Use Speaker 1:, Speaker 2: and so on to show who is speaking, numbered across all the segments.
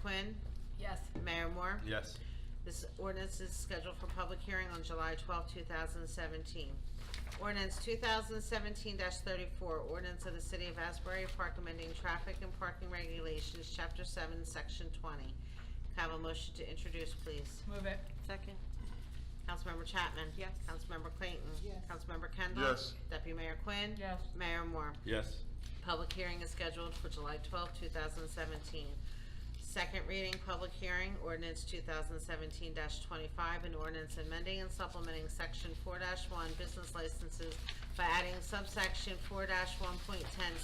Speaker 1: Quinn?
Speaker 2: Yes.
Speaker 1: Mayor Moore?
Speaker 3: Yes.
Speaker 1: This ordinance is scheduled for public hearing on July 12, 2017. Ordinance 2017-34, ordinance of the City of Asbury Park amending traffic and parking regulations, Chapter 7, Section 20. Can I Have a motion to introduce, please.
Speaker 2: Move it.
Speaker 4: Second.
Speaker 1: Councilmember Chapman?
Speaker 4: Yes.
Speaker 1: Councilmember Clayton?
Speaker 4: Yes.
Speaker 1: Councilmember Kendall?
Speaker 3: Yes.
Speaker 1: Deputy Mayor Quinn?
Speaker 2: Yes.
Speaker 1: Mayor Moore?
Speaker 3: Yes.
Speaker 1: Public hearing is scheduled for July 12, 2017. Second reading, public hearing, ordinance 2017-25, an ordinance amending and supplementing Section 4-1 Business Licenses by adding subsection 4-1.10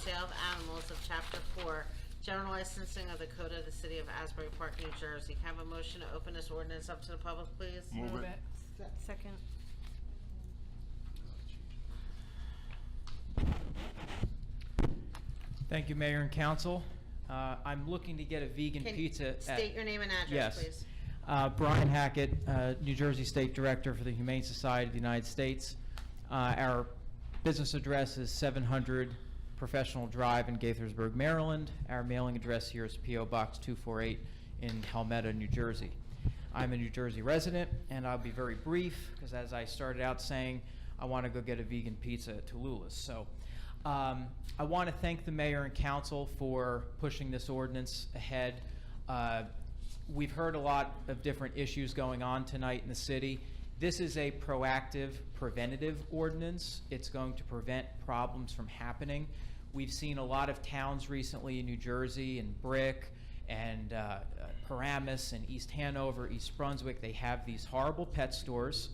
Speaker 1: Sale of Animals of Chapter 4, General Licensing of the Code of the City of Asbury Park, New Jersey. Can I have a motion to open this ordinance up to the public, please?
Speaker 3: Move it.
Speaker 4: Second.
Speaker 5: Thank you, Mayor and Council. Uh, I'm looking to get a vegan
Speaker 1: Can-
Speaker 5: pizza at...
Speaker 1: State your name and address, please.
Speaker 5: Yes. Uh, Brian Hackett, uh, New Jersey State Director for the Humane Society of the United States. Uh, Our business address is 700 Professional Drive in Gaithersburg, Maryland. Our mailing address here is PO Box 248 in Helmetta, New Jersey. I'm a New Jersey resident, and I'll be very brief, because as I started out saying, I want to go get a vegan pizza at Tallulah's. So um, I want to thank the mayor and council for pushing this ordinance ahead. Uh, we've heard a lot of different issues going on tonight in the city. This is a proactive, preventative ordinance. It's going to prevent problems from happening. We've seen a lot of towns recently in New Jersey and Brick and uh, uh, Paramus and East Hanover, East Brunswick, they have these horrible pet stores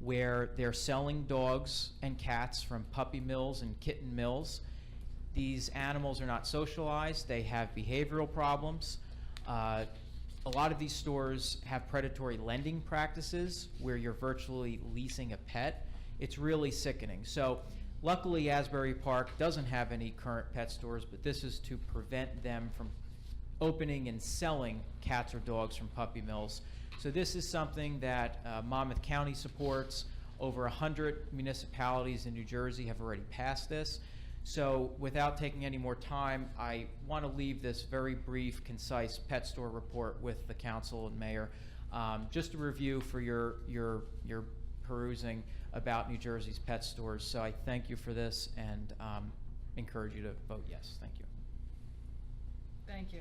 Speaker 5: where they're selling dogs and cats from puppy mills and kitten mills. These animals are not socialized, they have behavioral problems. Uh, a lot of these stores have predatory lending practices where you're virtually leasing a pet. It's really sickening. So, luckily, Asbury Park doesn't have any current pet stores, but this is to prevent them from opening and selling cats or dogs from puppy mills. So this is something that uh, Monmouth County supports. Over 100 municipalities in New Jersey have already passed this. So without taking any more time, I want to leave this very brief, concise pet store report with the council and mayor. Um, Just a review for your, your, your perusing about New Jersey's pet stores. So I thank you for this and um, encourage you to vote yes. Thank you.
Speaker 2: Thank you.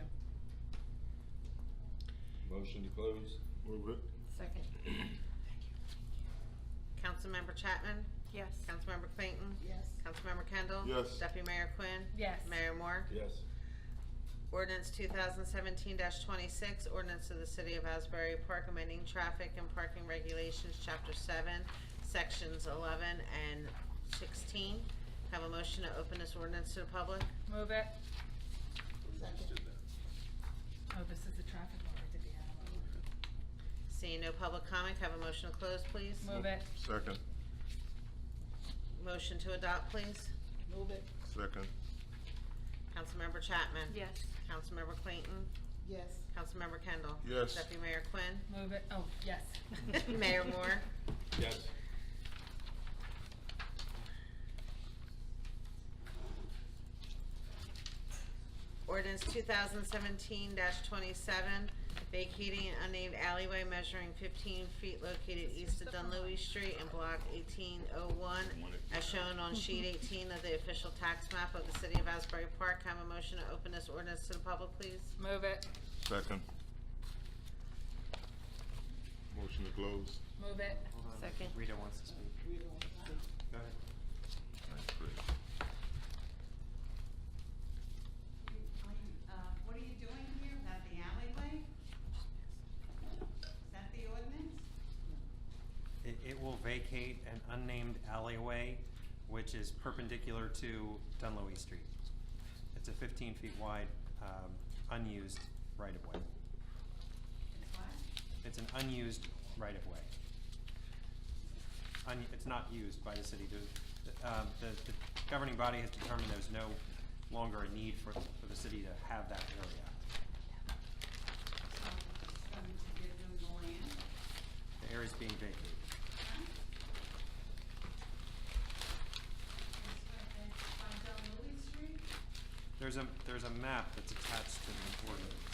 Speaker 3: Motion to close. Move it.
Speaker 2: Second.
Speaker 1: Councilmember Chapman?
Speaker 4: Yes.
Speaker 1: Councilmember Clayton?
Speaker 4: Yes.
Speaker 1: Councilmember Kendall?
Speaker 3: Yes.
Speaker 1: Deputy Mayor Quinn?
Speaker 2: Yes.
Speaker 1: Mayor Moore?
Speaker 3: Yes.
Speaker 1: Ordinance 2017-26, ordinance of the City of Asbury Park amending traffic and parking regulations, Chapter 7, Sections 11 and 16. Have a motion to open this ordinance to the public?
Speaker 2: Move it. Oh, this is the traffic one, I did the
Speaker 1: Seeing no public comment, have a motion to close, please?
Speaker 2: animal. Move it.
Speaker 3: Second.
Speaker 1: Motion to adopt, please?
Speaker 4: Move it.
Speaker 3: Second.
Speaker 1: Councilmember Chapman?
Speaker 4: Yes.
Speaker 1: Councilmember Clayton?
Speaker 4: Yes.
Speaker 1: Councilmember Kendall?
Speaker 3: Yes.
Speaker 1: Deputy Mayor Quinn?
Speaker 2: Move it. Oh, yes.
Speaker 1: Mayor Moore?
Speaker 3: Yes.
Speaker 1: Ordinance 2017-27, vacating an unnamed alleyway measuring 15 feet located east of Dunleavy Street in Block 1801, as shown on sheet 18 of the official tax map of the City of Asbury Park. Can I Have a motion to open this ordinance to the public, please.
Speaker 2: Move it.
Speaker 3: Second. Motion to close.
Speaker 2: Move it.
Speaker 4: Second.
Speaker 6: Rita wants to speak. Go ahead.
Speaker 3: Thanks, Chris.
Speaker 7: Uh, What are you doing here? Is that the alleyway? Is that the ordinance?
Speaker 6: It, it will vacate an unnamed alleyway, which is perpendicular to Dunloe Street. It's a fifteen feet wide, um, unused right-of-way.
Speaker 7: It's what?
Speaker 6: It's an unused right-of-way. Un, it's not used by the city. The, um, the, the governing body has determined there's no longer a need for, for the city to have that area.
Speaker 7: So it's going to give them the land?
Speaker 6: The area's being vacated.
Speaker 7: huh? It's what, that's on Del Louis Street?
Speaker 6: There's a, there's a map that's attached to the ordinance.